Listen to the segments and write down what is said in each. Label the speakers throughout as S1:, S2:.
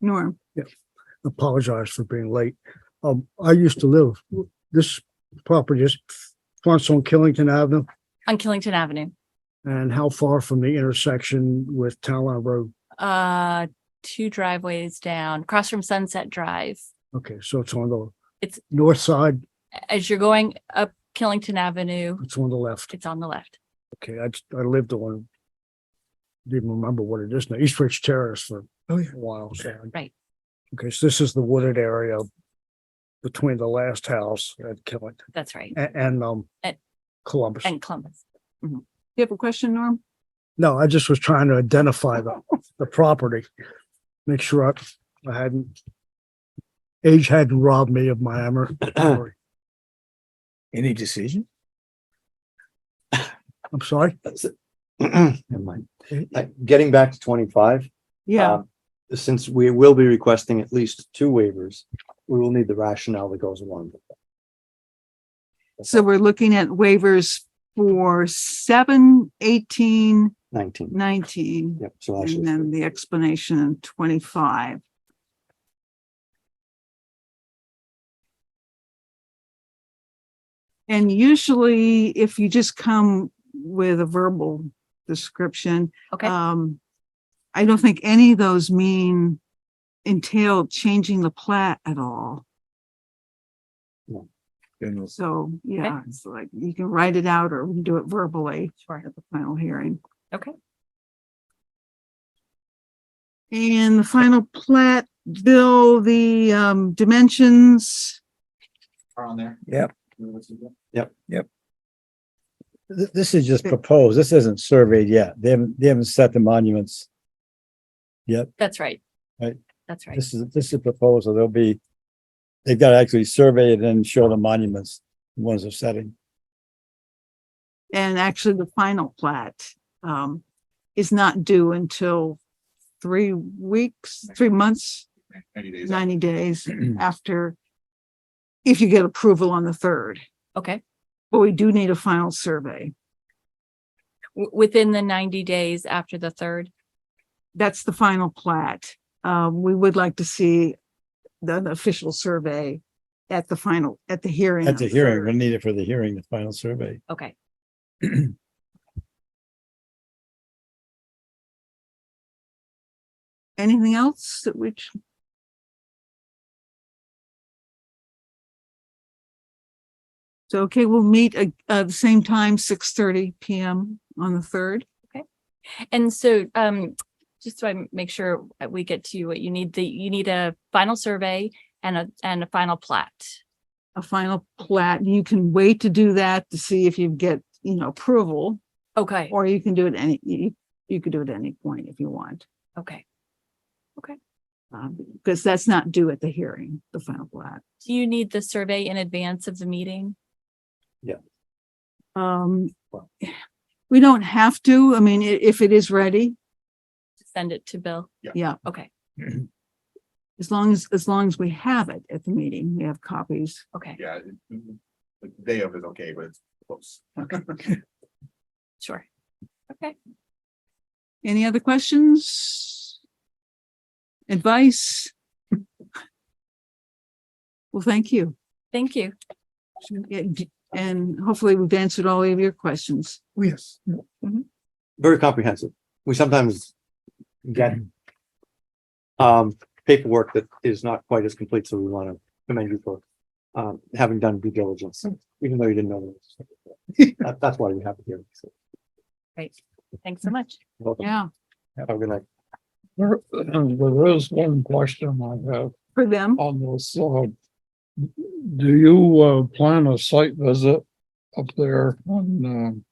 S1: Norm,
S2: apologize for being late. Um, I used to live, this property is fronts on Killington Avenue
S3: on Killington Avenue,
S2: and how far from the intersection with Town Line Road?
S3: uh, two driveways down, across from Sunset Drive.
S2: Okay, so it's on the
S3: It's-
S2: north side,
S3: As you're going up Killington Avenue,
S2: it's on the left.
S3: it's on the left.
S2: Okay, I, just- I lived on, didn't remember what it is now, East Ridge Terrace for a while. so I-
S3: Right.
S2: Okay, so this is the wooded area between the last house at Killington
S3: That's right.
S2: and, and, um,
S3: And-
S2: Columbus.
S3: And Columbus.
S1: you have a question, Norm?
S2: No, I just was trying to identify the, the property. Make sure I, I hadn't. Age hadn't robbed me of my memory. I'm
S4: Uh, Any decision?
S2: sorry.
S4: Never mind. Uh, Getting back to twenty-five. uh, Since we will be requesting at least two waivers, we will need the rationale that goes along. with that.
S1: So we're looking at waivers for seven, eighteen,
S4: Nineteen,
S1: nineteen,
S4: yep, so
S1: and
S4: actually,
S1: then the explanation in twenty-five. And usually if you just come with a verbal description,
S3: Okay,
S5: Uh,
S1: Um, I don't think any of those mean entail changing the plat at all. So, yeah, it's like you can write it out or we can do it verbally
S3: sure.
S1: at the final hearing.
S3: Okay.
S1: And the final plat, Bill, the um dimensions,
S6: are on there.
S5: Yep.
S4: Yep.
S5: Yep. Th- this is just proposed. This isn't surveyed yet. They haven't, they haven't set the monuments.
S3: That's right.
S5: Right.
S3: That's right.
S5: This is, this is proposed, so they'll be, they've got to actually survey it and show the monuments, the ones they're setting.
S1: and actually the final plat um is not due until three weeks, three months.
S6: Ninety days.
S1: ninety days after, if you get approval on the third,
S3: Okay.
S1: but we do need a final survey.
S3: W- Within the ninety days after the third.
S1: That's the final plat. Um, we would like to see the the official survey at the final, at the hearing.
S5: At the
S1: on
S5: hearing,
S1: third.
S5: we'll need it for the hearing, the final survey.
S3: Okay.
S1: Anything else that which? So, okay, we'll meet at, uh, the same time, six thirty PM on the third.
S3: And so, um, just so I make sure that we get to what you need, the, you need a final survey and a, and a final plat.
S1: a final plat. You can wait to do that to see if you get, you know, approval,
S3: Okay.
S1: or you can do it any, you, you could do it at any point if you want.
S3: Okay.
S1: Um, because that's not due at the hearing, the final plat.
S3: Do you need the survey in advance of the meeting?
S1: Um, we don't have to, I mean, i- if it is ready,
S3: Send it to Bill?
S6: Yeah.
S1: Yeah.
S3: Okay,
S1: as long as, as long as we have it at the meeting, we have copies.
S3: okay,
S6: Yeah. it- The day of is okay, but it's close.
S3: sure.
S1: Any other questions? Advice? Well, thank you.
S3: Thank you.
S1: Yeah, d- And hopefully we've answered all of your questions.
S2: Yes.
S4: very comprehensive. We sometimes get um, paperwork that is not quite as complete, so we want to commend you for um, having done due diligence, even though you didn't know. this. That- That's why we have it here. So,
S3: Great. Thanks so much.
S4: welcome.
S1: Yeah.
S4: Have a good night.
S7: There, uh, there is one question I have
S1: For them?
S7: on this, uh, do you, uh, plan a site visit up there when, um,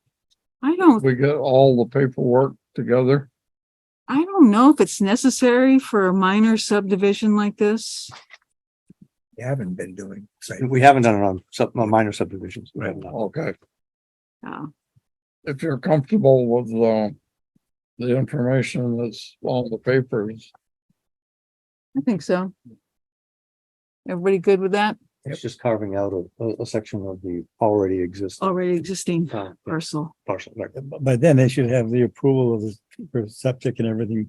S1: I don't,
S7: we get all the paperwork together?
S1: I don't know if it's necessary for a minor subdivision like this.
S6: You haven't been doing.
S4: We haven't done it on sub, on minor subdivisions. We have not.
S7: Okay,
S1: Uh,
S7: if you're comfortable with, um, the information that's on the papers,
S1: I think so. Everybody good with that?
S4: It's just carving out a- a, a section of the already existing
S1: Already existing
S4: uh,
S1: parcel.
S4: parcel. right.
S5: By then, they should have the approval of the for septic and everything